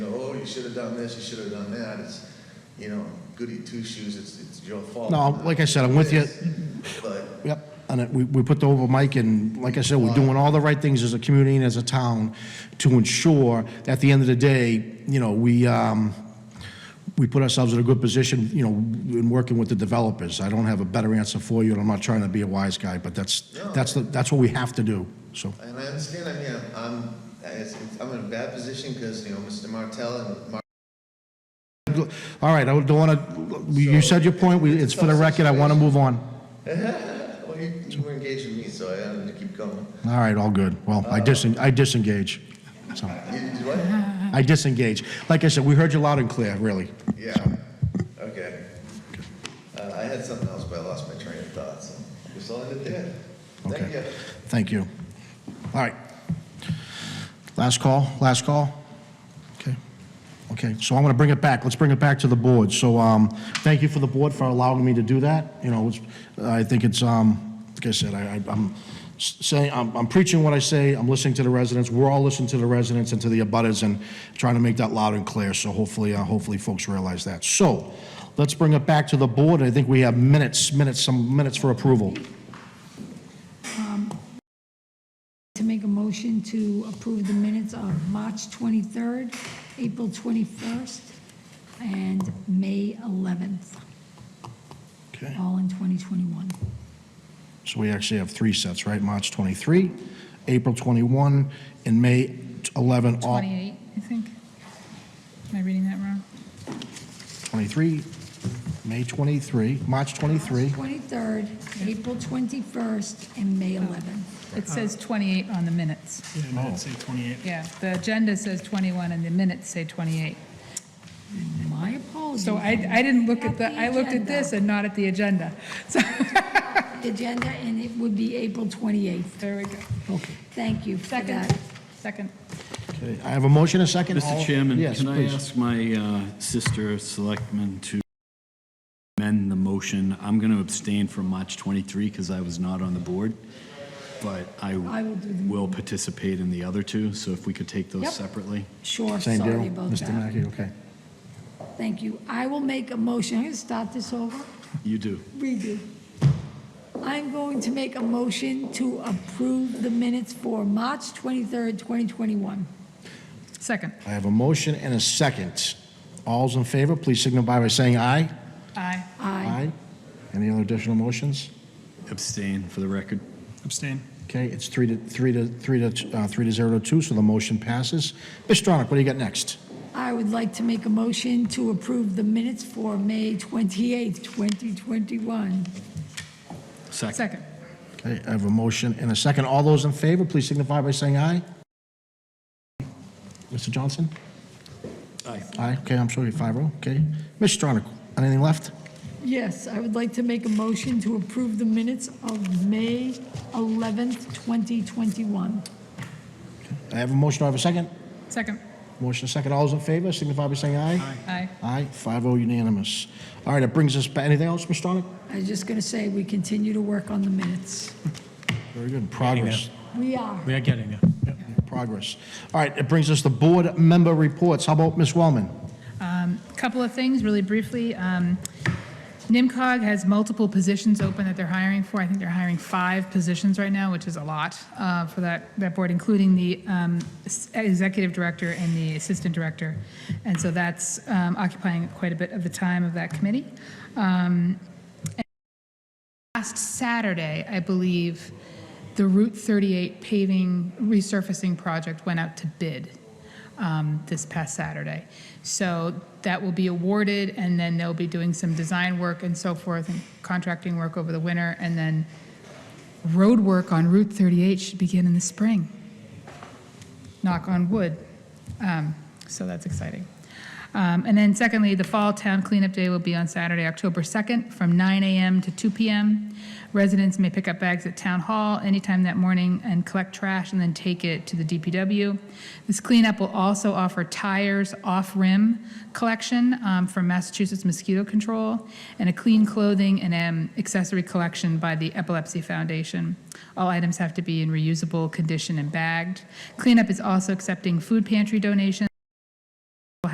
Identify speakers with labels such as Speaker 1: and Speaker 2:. Speaker 1: should have done this, "Oh, you should have done that, it's, you know, goody two-shoes, it's, it's your fault.
Speaker 2: No, like I said, I'm with you.
Speaker 1: But,
Speaker 2: Yep, and it- we, we put the over mic, and like I said, we're doing all the right things as a community and as a town to ensure, that at the end of the day, you know, we, um, we put ourselves in a good position, you know, in working with the developers. I don't have a better answer for you, and I'm not trying to be a wise guy, but that's,
Speaker 1: No.
Speaker 2: that's, the- that's what we have to do, so.
Speaker 1: and I understand, I mean, I'm- I'm, it's- it's- I'm in a bad position because, you know, Mr. Martell and Mark.
Speaker 2: All right, I don't want to, you said your point, we- it's for the record, I want to move on.
Speaker 1: Well, you you were engaged with me, so I had to keep going.
Speaker 2: All right, all good. Well, I disen, I disengage, so.
Speaker 1: You did what?
Speaker 2: I disengage. Like I said, we heard you loud and clear, really.
Speaker 1: Yeah, okay. Uh, I had something else, but I lost my train of thought, so just all I did there. Thank you.
Speaker 2: Okay. Thank you. All right. Last call, last call? Okay. Okay, so I'm going to bring it back. Let's bring it back to the board. So um, thank you for the board for allowing me to do that. You know, it's, I think it's, um, like I said, I, I- I'm s- saying, I'm I'm preaching what I say, I'm listening to the residents, we're all listening to the residents and to the abutters and trying to make that loud and clear, so hopefully, uh, hopefully folks realize that. So let's bring it back to the board. I think we have minutes, minutes, some minutes for approval.
Speaker 3: To make a motion to approve the minutes of March 23rd, April 21st, and May 11th,
Speaker 2: Okay.
Speaker 3: all in 2021.
Speaker 2: So we actually have three sets, right? March 23, April 21, and May 11, all
Speaker 4: 28, I think. Am I reading that wrong?
Speaker 2: 23, May 23, March 23.
Speaker 3: 23rd, April 21st, and May 11th.
Speaker 4: It says 28 on the minutes.
Speaker 5: Yeah, minutes say 28.
Speaker 4: Yeah, the agenda says 21 and the minutes say 28.
Speaker 3: My apologies.
Speaker 4: So I, I didn't look Oh, at the, I looked at this and not at the agenda. So,
Speaker 3: The Agenda, and it would be April 28th.
Speaker 4: there we go.
Speaker 3: Thank you for
Speaker 4: Second,
Speaker 3: that.
Speaker 4: second.
Speaker 2: Okay, I have a motion, a second. All-
Speaker 5: Mr. Chairman,
Speaker 2: Yes,
Speaker 5: can I
Speaker 2: please.
Speaker 5: ask my uh, sister selectman to amend the motion? I'm going to abstain from March 23 because I was not on the board, but I
Speaker 3: I will do the-
Speaker 5: will participate in the other two, so if we could take
Speaker 3: Yep.
Speaker 5: those separately.
Speaker 3: Sure,
Speaker 2: Same deal,
Speaker 3: sorry about
Speaker 2: Mr.
Speaker 3: that.
Speaker 2: Mackey, okay.
Speaker 3: Thank you. I will make a motion, I'm going to start this over.
Speaker 5: You do.
Speaker 3: redo. I'm going to make a motion to approve the minutes for March 23rd, 2021.
Speaker 4: Second.
Speaker 2: I have a motion and a second. All's in favor, please signify by saying aye.
Speaker 4: Aye.
Speaker 3: Aye.
Speaker 2: Any other additional motions?
Speaker 5: Abstain for the record.
Speaker 6: Abstain.
Speaker 2: Okay, it's three to, three to, three to, uh, three to zero to two, so the motion passes. Mr. Stronach, what do you got next?
Speaker 3: I would like to make a motion to approve the minutes for May 28th, 2021.
Speaker 5: Second.
Speaker 4: Second.
Speaker 2: Okay, I have a motion and a second. All those in favor, please signify by saying aye. Mr. Johnson?
Speaker 5: Aye.
Speaker 2: Aye, okay, I'm sorry, five oh, okay. Ms. Stronach, anything left?
Speaker 3: Yes, I would like to make a motion to approve the minutes of May 11th, 2021.
Speaker 2: I have a motion, do I have a second?
Speaker 4: Second.
Speaker 2: Motion, second, all those in favor, signify by saying aye.
Speaker 4: Aye.
Speaker 2: Aye, five oh unanimous. All right, it brings us, ba- anything else, Ms. Stronach?
Speaker 3: I was just going to say, we continue to work on the minutes.
Speaker 2: Very good, progress,
Speaker 3: We are.
Speaker 6: We are getting there. Yep.
Speaker 2: progress. All right, it brings us to board member reports. How about Ms. Wellman?
Speaker 4: Couple of things, really briefly. Um, NIMCOG has multiple positions open that they're hiring for. I think they're hiring five positions right now, which is a lot uh, for that, that board, including the um, s- executive director and the assistant director. And so that's um, occupying quite a bit of the time of that committee. Um, and Last Saturday, I believe, the Route 38 paving resurfacing project went out to bid um, this past Saturday. So that will be awarded, and then they'll be doing some design work and so forth, and contracting work over the winter, and then road work on Route 38 should begin in the spring. Knock on wood. Um, So that's exciting. Um, And then secondly, the Fall Town Cleanup Day will be on Saturday, October 2nd, from 9 a.m. to 2 p.m. Residents may pick up bags at Town Hall anytime that morning and collect trash and then take it to the DPW. This cleanup will also offer tires off-rim collection um, from Massachusetts Mosquito Control and a clean clothing and um, accessory collection by the Epilepsy Foundation. All items have to be in reusable condition and bagged. Cleanup is also accepting food pantry donations